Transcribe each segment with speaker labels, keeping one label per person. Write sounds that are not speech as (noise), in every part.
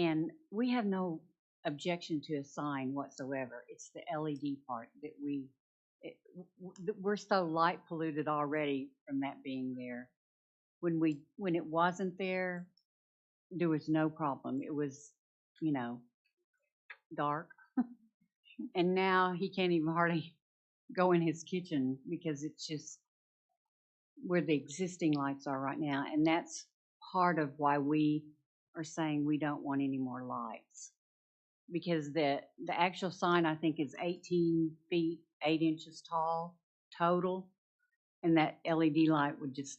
Speaker 1: And we have no objection to a sign whatsoever. It's the LED part that we, it, w- w- that we're so light polluted already from that being there. When we, when it wasn't there, there was no problem. It was, you know, dark. (laughs) And now he can't even hardly (laughs) go in his kitchen because it's just where the existing lights are right now. And that's part of why we are saying we don't want any more lights. Because the, the actual sign, I think, is eighteen feet, eight inches tall total. And that LED light would just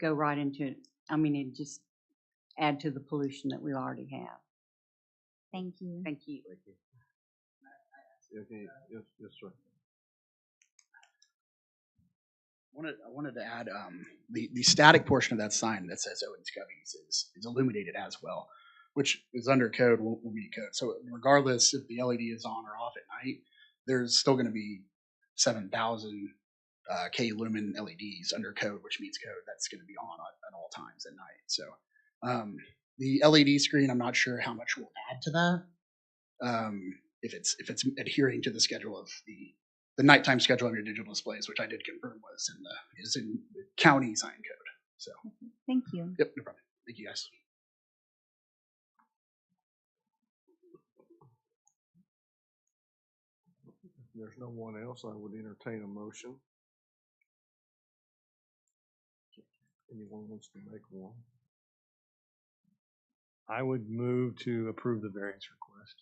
Speaker 1: go right into it. I mean, it'd just add to the pollution that we already have.
Speaker 2: Thank you.
Speaker 1: Thank you.
Speaker 3: Thank you. Okay,
Speaker 4: Uh,
Speaker 3: yes, yes, sir.
Speaker 4: Wanted, I wanted to add, um, the, the static portion of that sign that says Owens Covey's is, is illuminated as well, which is under code, will, will be code. So regardless if the LED is on or off at night, there's still gonna be seven thousand, uh, K lumen LEDs under code, which means code that's gonna be on at, at all times at night. So, um, the LED screen, I'm not sure how much will add to that. Um, if it's, if it's adhering to the schedule of the, the nighttime schedule on your digital displays, which I did confirm was in the is in the county sign code. So
Speaker 2: Thank you.
Speaker 4: yep, no problem. Thank you guys.
Speaker 3: If there's no one else, I would entertain a motion. Anyone wants to make one? I would move to approve the variance request.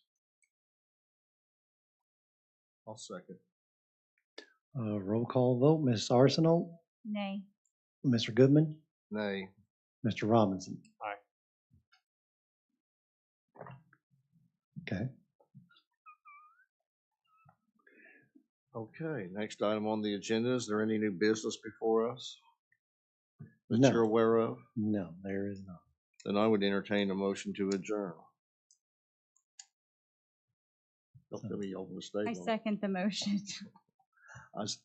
Speaker 3: I'll second.
Speaker 5: Uh, roll call vote, Ms. Arsenal,
Speaker 2: Nay.
Speaker 5: Mr. Goodman,
Speaker 3: Nay.
Speaker 5: Mr. Robinson.
Speaker 3: Aye.
Speaker 5: Okay,
Speaker 3: Okay, next item on the agenda, is there any new business before us that
Speaker 5: No.
Speaker 3: you're aware of?
Speaker 5: no, there is not.
Speaker 3: Then I would entertain a motion to adjourn. Don't let me open the
Speaker 2: I
Speaker 3: statement.
Speaker 2: second the motion. (laughs)
Speaker 3: I s-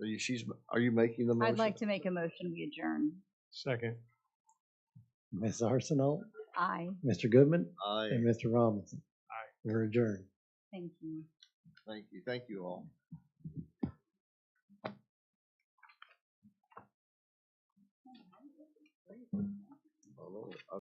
Speaker 3: Are you, she's, are you making the motion?
Speaker 2: I'd like to make a motion, we adjourn.
Speaker 3: Second.
Speaker 5: Ms. Arsenal,
Speaker 2: Aye.
Speaker 5: Mr. Goodman,
Speaker 3: Aye,
Speaker 5: and Mr. Robinson.
Speaker 3: Aye.
Speaker 5: We're adjourned.
Speaker 2: Thank you.
Speaker 3: thank you, thank you all.